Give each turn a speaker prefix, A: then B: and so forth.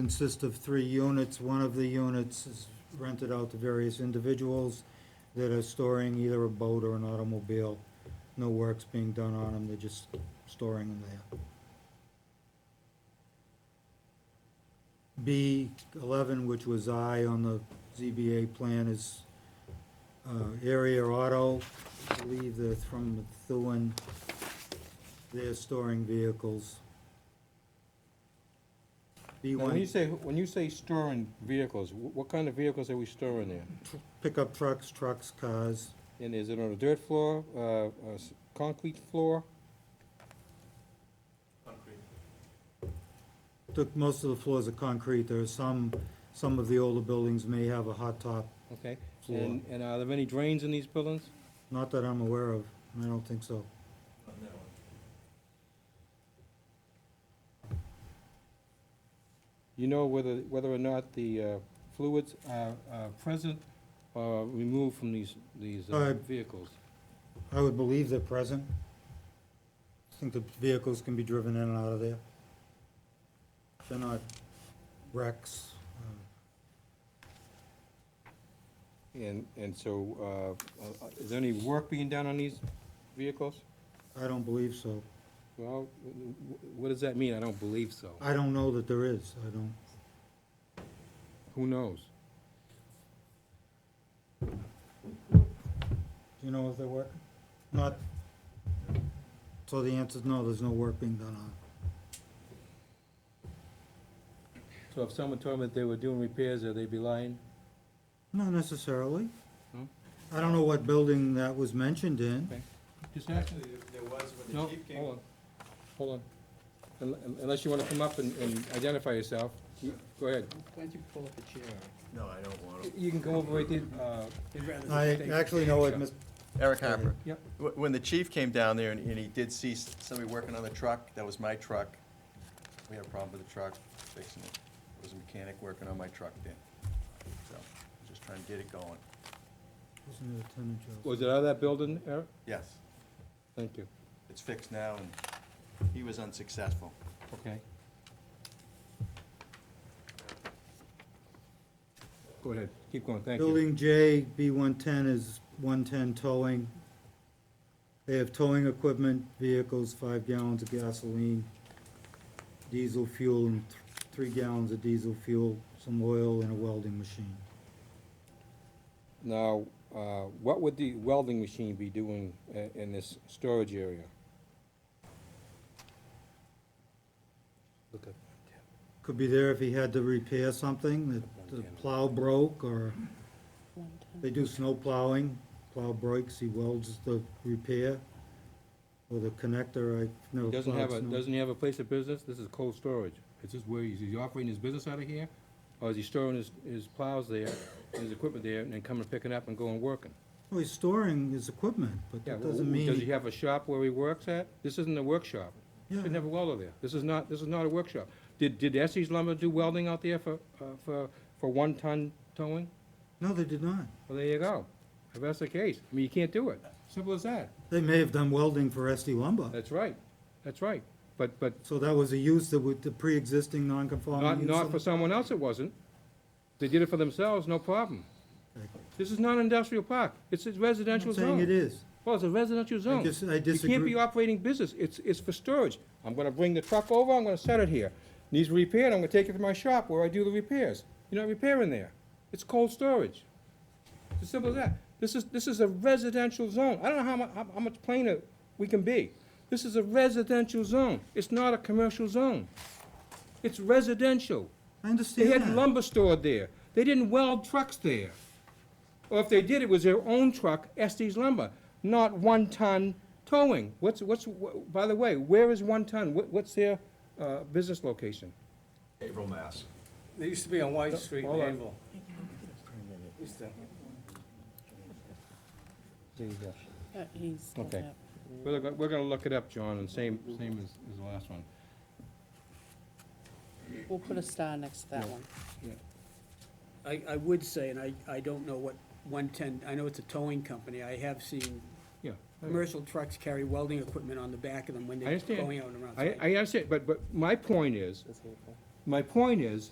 A: consists of three units. One of the units is rented out to various individuals that are storing either a boat or an automobile. No work's being done on them, they're just storing them there. B eleven, which was I on the ZBA plan, is uh, area auto. I believe they're from Methuen. They're storing vehicles. B
B: Now, When you
A: one,
B: say, when you say storing vehicles, wh- what kind of vehicles are we storing there?
A: pickup trucks, trucks, cars.
B: And is it on a dirt floor, uh, a s- concrete floor?
A: Took, most of the floors are concrete, there are some, some of the older buildings may have a hot top,
B: Okay,
A: Floor.
B: and, and are there any drains in these buildings?
A: not that I'm aware of, I don't think so.
B: You know whether, whether or not the uh, fluids are, are present or removed from these, these uh,
A: Uh,
B: vehicles?
A: I would believe they're present. I think the vehicles can be driven in and out of there. They're not wrecks. um,
B: And, and so, uh, uh, is there any work being done on these vehicles?
A: I don't believe so.
B: Well, w- w- what does that mean? I don't believe so.
A: I don't know that there is, I don't.
B: Who knows?
A: Do you know if they're working? Not, so the answer's no, there's no work being done on it.
B: So if someone told me that they were doing repairs, are they be lying?
A: Not necessarily.
B: No?
A: I don't know what building that was mentioned in.
B: Just ask.
C: Actually, there- there was when the
B: No,
C: chief came.
B: hold on, hold on. Unle- un- Unless you wanna come up and, and identify yourself, you- go ahead.
D: Why don't you pull up a chair?
C: No, I don't want
B: You can come over right there, uh,
D: They'd rather
A: I
D: stay-
A: actually know what Ms.
C: Eric Harper.
B: Yep.
C: Wh- When the chief came down there and and he did see s- somebody working on the truck, that was my truck. We had a problem with the truck, fixing it. There was a mechanic working on my truck then. So, just trying to get it going.
A: Wasn't it a tenant, Joe?
B: was it out of that building, Eric?
C: Yes,
B: Thank you,
C: it's fixed now and he was unsuccessful.
B: okay. Go ahead, keep going, thank you.
A: Building J, B one ten is one ten towing. They have towing equipment, vehicles, five gallons of gasoline, diesel fuel, and th- three gallons of diesel fuel, some oil, and a welding machine.
B: Now, uh, what would the welding machine be doing i- in this storage area? Look at,
A: Could be there if he had to repair something, that the plow broke, or they do snow plowing, plow breaks, he welds the repair, or the connector, I've never
B: He doesn't
A: plowed
B: have a,
A: snow.
B: doesn't he have a place of business? This is cold storage. Is this where, he's he operating his business out of here? Or is he storing his, his plows there, his equipment there, and then coming, picking up and going working?
A: Well, he's storing his equipment, but
B: Yeah,
A: that
B: wh-
A: doesn't mean.
B: Does he have a shop where he works at? This isn't a workshop.
A: Yeah.
B: Shouldn't have a welder there. This is not, this is not a workshop. Did, did Estes Lumber do welding out there for, uh, for, for one-ton towing?
A: No, they did not.
B: Well, there you go. If that's the case, I mean, you can't do it. Simple as that.
A: They may have done welding for SD Lumber.
B: That's right. That's right. But, but
A: So that was a use that would, the pre-existing
B: Not,
A: non-conforming
B: not for
A: use.
B: someone else it wasn't. They did it for themselves, no problem.
A: Okay.
B: This is not an industrial park, it's a
A: I'm
B: residential
A: not
B: zone.
A: saying it is.
B: Well, it's a residential zone.
A: dis- I
B: You can't
A: disagree.
B: be operating business, it's, it's for storage. I'm gonna bring the truck over, I'm gonna set it here. Needs repaired, I'm gonna take it to my shop where I do the repairs. You're not repairing there. It's cold storage. It's as simple as that. This is, this is a residential zone. I don't know how mu, how, how much plainer we can be. This is a residential zone. It's not a commercial zone. It's residential.
A: I
B: They
A: understand
B: had
A: that.
B: lumber stored there. They didn't weld trucks there. Or if they did, it was their own truck, Estes Lumber, not one-ton towing. What's, what's, wh- by the way, where is one ton? What, what's their, uh, business location?
C: April Mass.
D: They used to be on White Street in
B: Hold on.
D: Danville. Used to-
E: Uh, He's got
B: Okay.
E: that.
B: We're gonna, we're gonna look it up, John, and same, same as, as the last one.
E: We'll put a star next to that one.
D: I, I would say, and I, I don't know what one-ten, I know it's a towing company, I have seen
B: Yeah.
D: commercial trucks carry welding equipment on the back of them when
B: I
D: they're
B: understand.
D: going out and around.
B: I, I understand, but, but my point is, my point is,